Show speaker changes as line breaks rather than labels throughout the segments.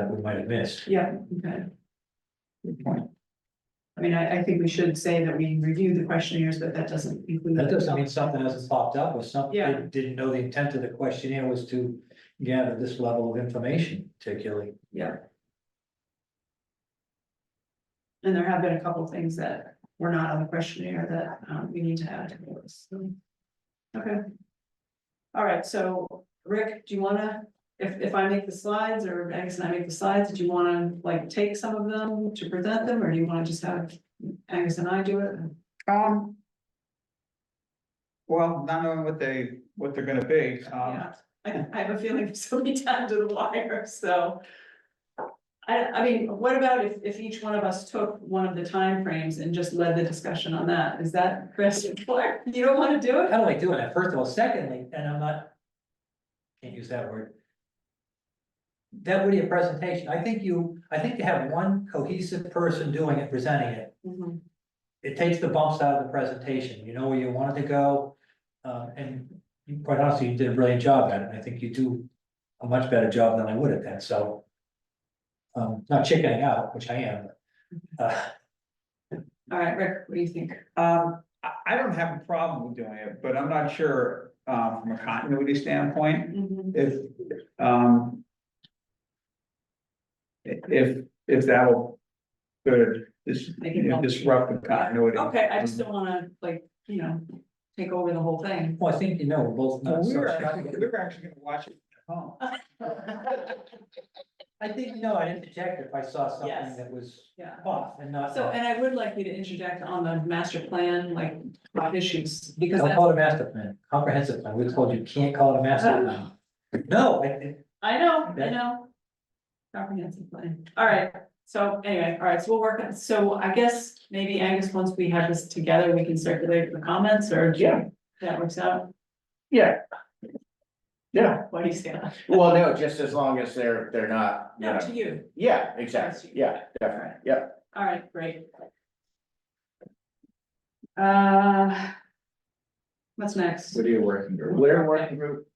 we might have missed.
Yeah, okay. Good point. I mean, I, I think we should say that we reviewed the questionnaires, but that doesn't include.
That doesn't mean something hasn't popped up or something,
Yeah.
didn't- didn't know the intent of the questionnaire was to gather this level of information particularly.
Yeah. And there have been a couple of things that were not on the questionnaire that um we need to add to the list. so. Okay. All right, so Rick, do you wanna, if if I make the slides or Angus and I make the slides, do you wanna like take some of them to present them, or do you wanna just have Angus and I do it?
Um. Well, not knowing what they, what they're gonna be, um,
Yeah, I, I have a feeling it's so many times to the wire, so. I, I mean, what about if, if each one of us took one of the timeframes and just led the discussion on that? Is that Chris, you don't wanna do it?
How do I do it? First of all, secondly, and I'm not. Can't use that word. That would be a presentation. I think you, I think to have one cohesive person doing it, presenting it.
Mhm.
it takes the bumps out of the presentation, you know where you wanted to go. Um, and you- quite honestly, you did a brilliant job at it, and I think you do a much better job than I would at that, so. Um, not chickening out, which I am, but, uh,
All right, Rick, what do you think?
um, I, I don't have a problem with doing it, but I'm not sure, um, from a continuity standpoint,
Mhm.
if, um. i- If, if that will, sort of dis-
Make it
you know,
help.
disrupt the continuity.
Okay, I just don't wanna, like, you know, take over the whole thing.
well, I think, you know, we're both.
Well,
not
we
so
were Uh, actually, we
sure.
were actually gonna watch it at home.
I think, you know, I'd interject if I saw something
Yes.
that was
Yeah.
off and not.
So, and I would like you to interject on the master plan, like, hot issues, because
Don't
that's
call it a master plan, comprehensive plan, we told you can't call it a master plan. No, I, I-
I know, I
Okay.
know. Comprehensive plan, all right, so anyway, all right, so we'll work, on so I guess maybe Angus, once we have this together, we can circulate the comments or.
Yeah.
That works out,
Yeah. Yeah,
what do you say?
well, no, just as long as they're, they're not, you
No, to
know,
you,
yeah, exactly, yeah, definitely, yeah.
all right, great. Uh. What's next?
are you working group?
Blair Working Group.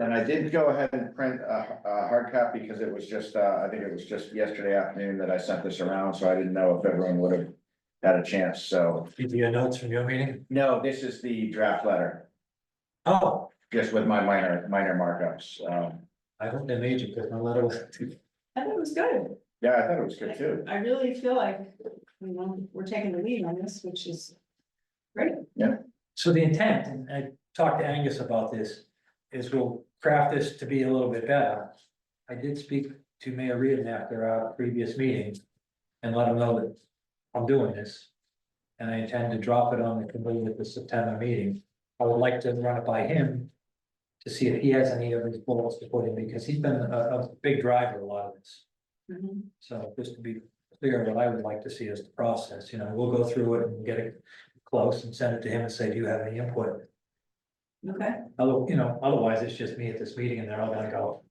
And I did go ahead and print a, a hard copy because it was just, uh, I think it was just yesterday afternoon that I sent this around, so I didn't know if everyone would have had a chance, so.
did you get notes from your meeting?
No, this is the draft letter,
Oh,
just with my minor, minor markups, um,
I hope they made you, because my letter was.
I thought it was good,
yeah, I thought it was good too.
I really feel like, you know, we're taking the lead on this, which is. Great,
So the intent, and I talked to Angus about this, is we'll craft this to be a little bit better. I did speak to Mayor Reardon after our previous meeting and let him know that I'm doing this. And I intend to drop it on the committee at the September meeting. I would like to run it by him to see if he has any of his bullets to put in, because he's been a, a big driver a lot of this.
Mhm.
So just to be clear, what I would like to see is the process, you know, we'll go through it and get it close and send it to him and say, do you have any input?
okay.
Although, you know, otherwise it's just me at this meeting and they're all gonna go,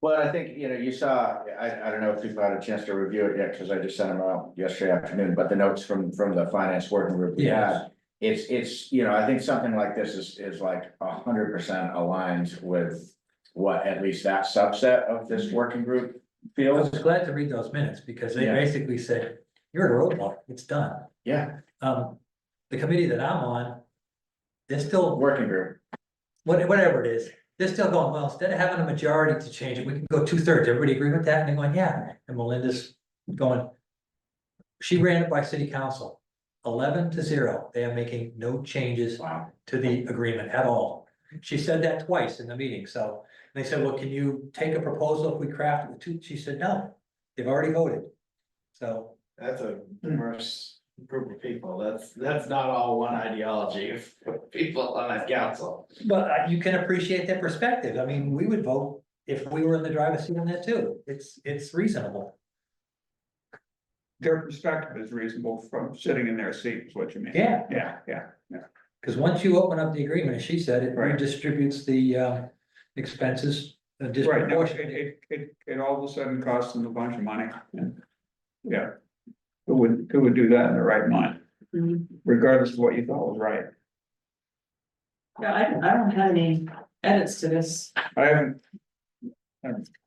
Well, I think, you know, you saw, I, I don't know if you've had a chance to review it yet, because I just sent them out yesterday afternoon, but the notes from, from the finance working group. we had,
yeah,
It's, it's, you know, I think something like this is, is like a hundred percent aligned with what at least that subset of this working group
I was
feels.
glad to read those minutes because they
Yeah.
basically said, you're at a roadblock, it's done.
Yeah,
Um, the committee that I'm on, they're still
working group.
what, whatever it is, they're still going, well, instead of having a majority to change it, we can go two thirds, everybody agree with that, and they're going, yeah, and Melinda's going. She ran it by city council, eleven to zero, they are making no changes
Wow.
to the agreement at all. She said that twice in the meeting, so, and they said, well, can you take a proposal if we craft it with two, she said, no, they've already voted. So,
That's a diverse group of people. That's, that's not all one ideology of people on that council.
but uh, you can appreciate their perspective, I mean, we would vote if we were in the driver's seat on that too, it's, it's reasonable.
Their perspective is reasonable from sitting in their seat, is what you mean.
Yeah,
Yeah, yeah.
Because once you open up the agreement, as she said, it
Right.
redistributes the uh, expenses. uh,
Right, no, it,
disproportionately.
it, it, it all of a sudden costs them a bunch of money. Yeah. Who would, who would do that in their right mind,
Mhm.
regardless of what you thought was right?
Yeah, I don't, I don't have any edits to this.
I haven't. I haven't